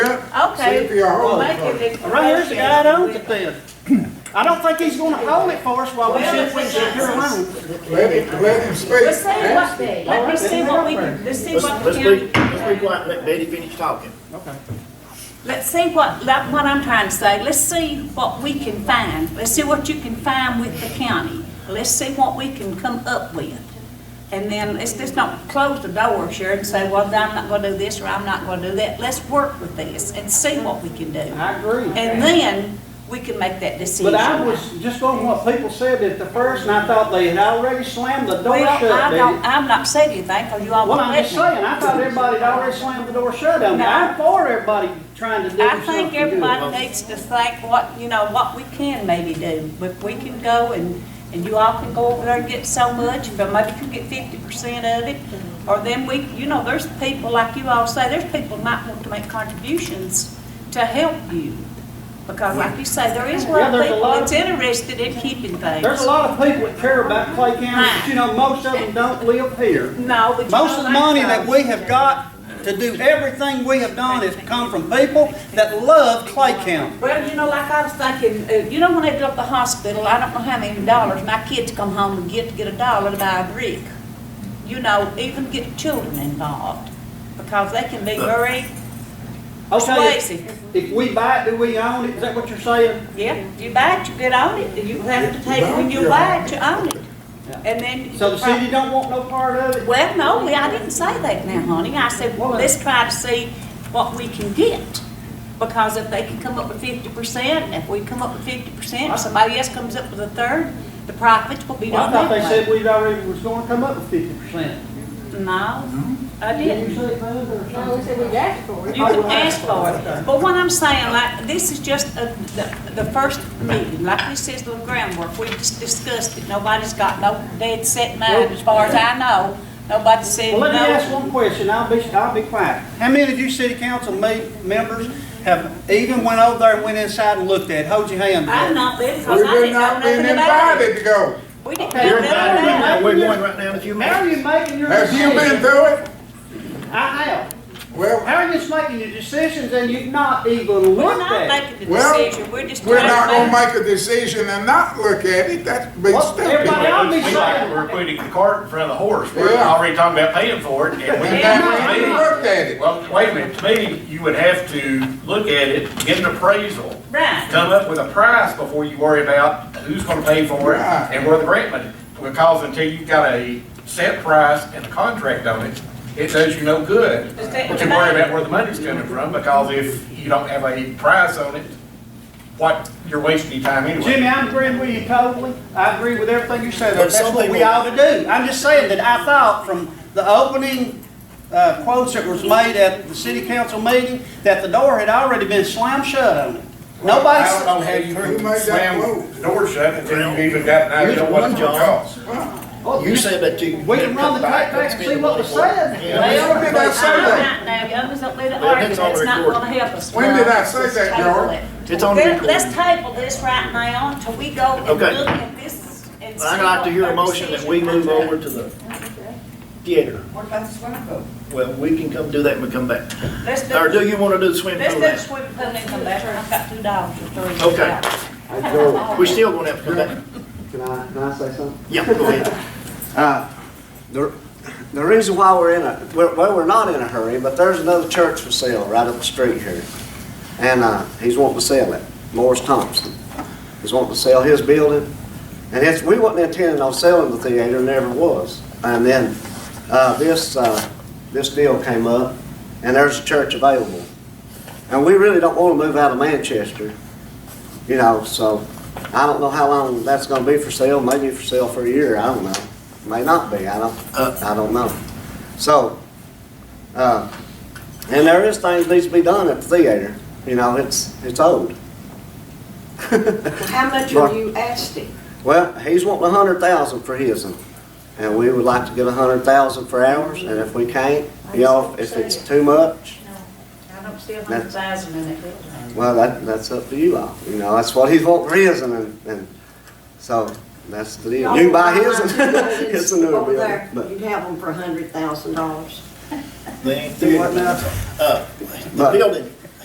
Okay, See if you're a we'll hole make first. it. Right here's the guy that owns it then. I don't think he's gonna hold it for us while we Well, sit if we it's sit here us. alone. Let him, let him speak. Let's see what they, let me see what we can, let's see Let's, what the county. let's be, let's be quiet, and let Betty finish talking. Okay. Let's see what, like what I'm trying to say, let's see what we can find, let's see what you can find with the county. Let's see what we can come up with. And then, let's just not close the door, Sharon, and say, well, I'm not gonna do this, or I'm not gonna do that. Let's work with this and see what we can do. I agree. And then, we can make that decision. But I was just on what people said at the first and I thought they had already slammed the door Well, shut. I Betty. don't, I'm not saying anything, because you all Well, won't I'm let just me. saying, I thought everybody had already slammed the door shut on me. No. I'm for everybody trying to do I something think good. everybody needs to think what, you know, what we can maybe do. If we can go and, and you all can go over there and get so much, but maybe you can get fifty percent of it. Or then we, you know, there's people, like you all say, there's people might want to make contributions to help you. Because like you say, there is a Yeah, lot of there's a people lot that's interested in keeping things. There's a lot of people that care about Clay County, but you know, most of them don't live here. No, but you Most of don't like the money that those. we have got to do everything we have done has come from people that love Clay County. Well, you know, like I was thinking, uh, you know, when they built the hospital, I don't know how many dollars my kids come home and get to get a dollar to buy a brick. You know, even get children involved because they can be very Okay, persuasive. if we buy it, do we own it? Is that what you're saying? Yeah, you buy it, you get on it. You have to take when you buy it, you own it, and then. So the city don't want no part of it? Well, no, I didn't say that now, honey. I said, well, let's try to see what we can get. Because if they can come up with fifty percent, if we come up with fifty percent, somebody else comes up with a third, the profits will be Well, I done thought they that said way. we would already was gonna come up with fifty percent. No, I Did didn't. you say that or something? No, we said we asked for You it. can ask for it. But what I'm saying, like, this is just a- the, the first meeting, like this is the groundwork. We just discussed it. Nobody's got no dead set mind, as far as I know. Nobody said no. Well, let me ask one question, I'll be, I'll be quiet. How many of you city council me- members have even went over there and went inside and looked at, it? hold your hand I'm up? not there because We've I didn't know not nothing been about it. invited to go. We didn't Okay, know You're nothing invited about to now. it. that. We're going right now in a few How are minutes. you making your Have you been decisions? through it? I have. Well, How are you just making your decisions and you've not even We're looked not at? it? making the Well, decision, we're just we're not trying gonna to make. make a decision and not look at it, that's big Well, everybody stupid. else- I'll be It's sorry. like We're putting the cart in front of the horse. We're Yeah. already talking about paying for it. and we- And Yeah, now we to me- haven't looked at it. Well, wait a minute, to me, you would have to look at it, get an appraisal, Right, come up with a price before you worry about who's gonna pay for it Right. and where the grant money. Because until you've got a set price and a contract on it, it does you no good. Just take But the you worry money. about where the money's coming from, because if you don't have a price on it, what, you're wasting your time anyway. Jimmy, I'm agreeing with you totally. I agree with everything you said. But That's some what we people- ought to do. I'm just saying that I thought from the opening uh, quotes that was made at the city council meeting, that the door had already been slammed shut on it. Nobody, I don't know how you Who made can that slam move? the door shut until you even got an idea what it's gonna cost. Well, You said that you. Oh, We can run the tape back and see what was said. Yeah. When did I say I'm that? right now, y'all just don't leave the Well, argument, that's on it's not record. gonna help us. When did I Let's say that, table George? it. It's on Let- record. Let's table this right now until we go and Okay. look at this and see. I'd like what to hear our a motion that we decision move might be. over to the theater. What about the swimming pool? Well, we can come do that when we come back. Let's do, Or let's do you want to do the do swimming pool? the now? swimming pool and come back, I've got two dollars or three. Okay. We still gonna have to come back? Can I, can I say something? Yeah, go ahead. Uh, The the reason why we're in a, well, well, we're not in a hurry, but there's another church for sale right up the street here. And uh, he's wanting to sell it, Morris Thompson. He's wanting to sell his building. And it's, we wasn't intending on selling the theater, never was. And then uh, this, uh, this deal came up, and there's a church available. And we really don't want to move out of Manchester, you know, so I don't know how long that's gonna be for sale, maybe for sale for a year, I don't know. May not be, I don't, Uh. I don't know. So, uh, and there is things needs to be done at the theater, you know, it's, it's old. How much Right. are you asking? Well, he's wanting a hundred thousand for his, and- and we would like to get a hundred thousand for ours, and if we can't, you know, if it's too much, I don't see a hundred thousand in it, do I? well, that, that's up to you all, you know, that's what he's wanting for his, and- and, and, so, that's the deal. You can buy his, and it's a newer Over building, there, but, You'd have them for a hundred thousand dollars. The theater. What now? Uh, The But- building,